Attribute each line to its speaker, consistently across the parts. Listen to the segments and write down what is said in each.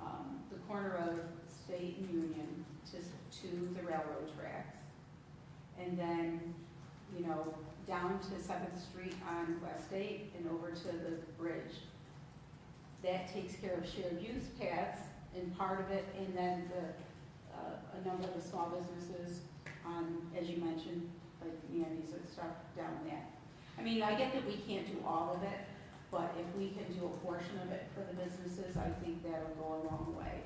Speaker 1: um, to the railroad tracks. And then, you know, down to Seventh Street on West Eighth and over to the bridge. That takes care of shared use paths and part of it, and then the, uh, a number of the small businesses on, as you mentioned, like Mandy's and stuff down there. I mean, I get that we can't do all of it, but if we can do a portion of it for the businesses, I think that'll go a long way.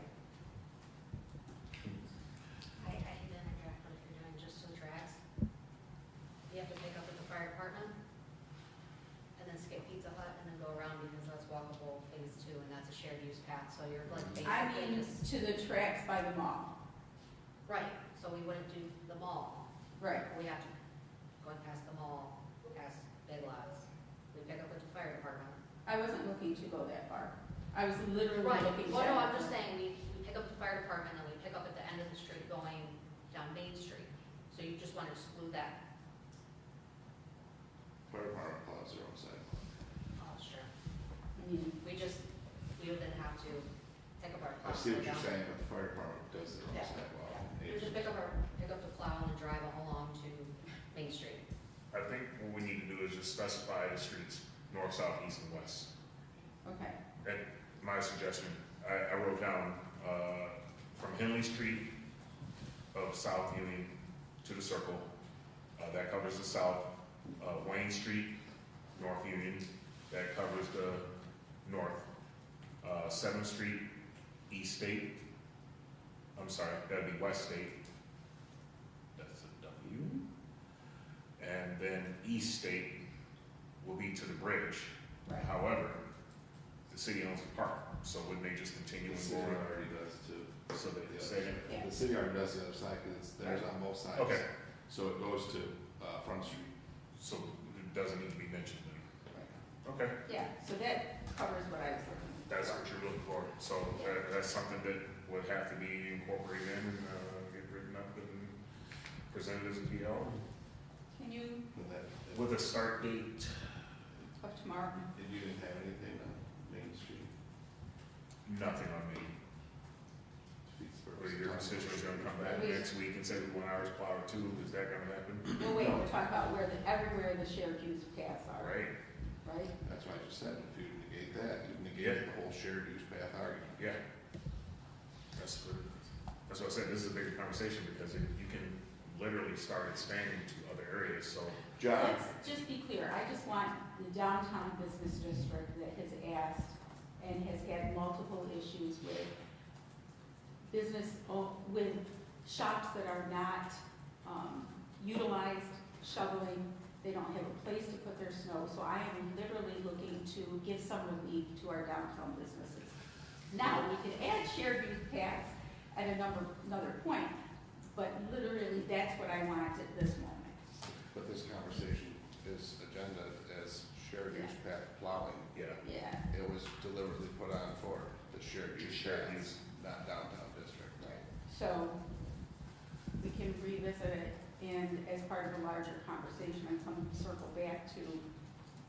Speaker 2: I, I hate to interject, but if you're doing just some tracks, you have to pick up at the fire department and then skip Pizza Hut and then go around because that's walkable phase two and that's a shared use path, so you're like
Speaker 1: I mean,
Speaker 2: basically just.
Speaker 1: to the tracks by the mall.
Speaker 2: Right, so we wouldn't do the mall,
Speaker 1: Right.
Speaker 2: we have to, going past the mall, past Big Lots, we pick up at the fire department.
Speaker 1: I wasn't looking to go that far. I was literally
Speaker 2: Right,
Speaker 1: looking.
Speaker 2: well,
Speaker 1: down.
Speaker 2: no, I'm just saying, we, we pick up at the fire department and we pick up at the end of the street going down Main Street, so you just wanna exclude that,
Speaker 3: Fire department plows their own sidewalk.
Speaker 2: oh, sure.
Speaker 1: I mean,
Speaker 2: We just, we would then have to pick up our plow.
Speaker 3: I see what
Speaker 2: and go
Speaker 3: you're
Speaker 2: down.
Speaker 3: saying, but the fire department does their own
Speaker 2: Oh, Yeah.
Speaker 3: sidewalk.
Speaker 2: We would just pick up our, pick up the plow and drive it along to Main Street.
Speaker 4: I think what we need to do is just specify the streets, north, south, east, and west.
Speaker 1: Mm-hmm. Okay,
Speaker 4: My suggestion, I, I wrote down, uh, from Henley Street of South Union to the circle, uh, that covers the south, uh, Wayne Street, North Union, that covers the north, uh, Seventh Street, East State, I'm sorry, that'd be West State, that's a W, and then East State will be to the bridge.
Speaker 1: right.
Speaker 4: However, the city owns the park, so it may just continue
Speaker 3: The
Speaker 4: and
Speaker 3: city
Speaker 4: go
Speaker 3: already
Speaker 4: around.
Speaker 3: does too.
Speaker 4: So they
Speaker 3: Yeah.
Speaker 4: just say,
Speaker 1: Yeah.
Speaker 3: The city already does the other side, cause it's theirs on both sides.
Speaker 4: okay,
Speaker 3: So it goes to, uh, Front Street.
Speaker 4: so it doesn't need to be mentioned then. Okay,
Speaker 1: Yeah, so that covers what I was looking for.
Speaker 4: that's what you're looking for. So that, that's something that would have to be incorporated in and, uh, get written up and presented as a PL
Speaker 1: Can you,
Speaker 3: And that,
Speaker 4: with a start date.
Speaker 1: of tomorrow?
Speaker 3: and you didn't have anything on Main Street,
Speaker 4: Nothing on me.
Speaker 3: Pittsburgh.
Speaker 4: Or your constituents gonna come back next week and say one hour's plowed or two, is that gonna happen?
Speaker 1: No, wait, we're talking about where the, everywhere the shared use paths
Speaker 4: All
Speaker 1: are,
Speaker 4: right,
Speaker 1: right?
Speaker 3: That's why I just said, if you negate that, you negate the whole shared use path argument.
Speaker 4: Yeah. That's what, that's what I said, this is a bigger conversation because it- you can literally start expanding to other areas, so.
Speaker 3: John,
Speaker 1: Let's just be clear, I just want the downtown business district that has asked and has had multiple issues with business, o- with shops that are not um, utilized, shoveling, they don't have a place to put their snow, so I am literally looking to give some relief to our downtown businesses. Now, we can add shared use paths at a number, another point, but literally, that's what I want at this moment.
Speaker 3: but this conversation is agenda as shared use path plowing.
Speaker 4: Yeah.
Speaker 1: Yeah.
Speaker 3: It was deliberately put on for the shared use
Speaker 4: Just shared
Speaker 3: paths,
Speaker 4: use.
Speaker 3: not downtown district.
Speaker 1: So we can revisit it and as part of a larger conversation and come circle back to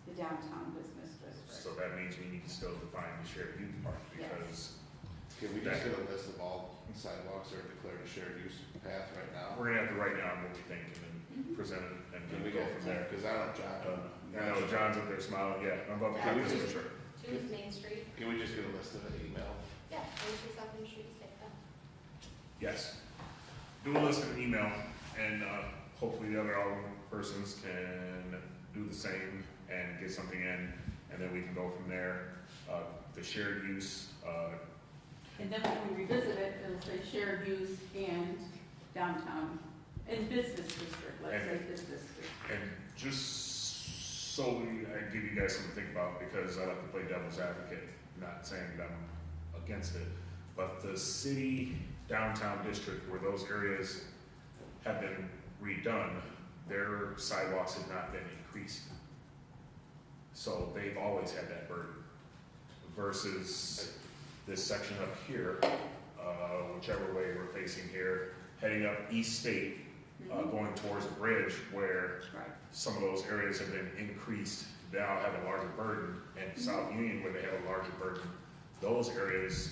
Speaker 1: the downtown business
Speaker 4: So
Speaker 1: district.
Speaker 4: that means we need to still define the shared view part because
Speaker 3: Can we just get a list of all sidewalks that are declared a shared use path right now?
Speaker 4: we're gonna have to write down what we think and then present it and
Speaker 3: Can
Speaker 4: then
Speaker 3: we
Speaker 4: go
Speaker 3: get
Speaker 4: from there.
Speaker 3: Cause I don't,
Speaker 4: Uh,
Speaker 3: John,
Speaker 4: I know John's up there smiling, yeah, I'm about to
Speaker 2: Yeah.
Speaker 4: cut this for sure.
Speaker 2: Two is Main Street?
Speaker 3: can we just get a list of an email?
Speaker 2: Yeah, Main Street, South Main Street, is like that.
Speaker 4: Yes. Do a list and email, and uh, hopefully the other alderman persons can do the same and get something in, and then we can go from there. Uh, The shared use, uh,
Speaker 1: And then when we revisit it, it'll say shared use and downtown, and business district, let's say business district.
Speaker 4: and just so we, I give you guys something to think about, because I like to play devil's advocate, not saying that I'm against it, but the city downtown district where those areas have been redone, their sidewalks have not been increased. So they've always had that burden versus this section up here, uh, whichever way we're facing here, heading up East State, uh,
Speaker 1: Mhm.
Speaker 4: going towards the bridge where
Speaker 1: Right.
Speaker 4: some of those areas have been increased, now have a larger burden, and South Union, where they have a larger burden, those areas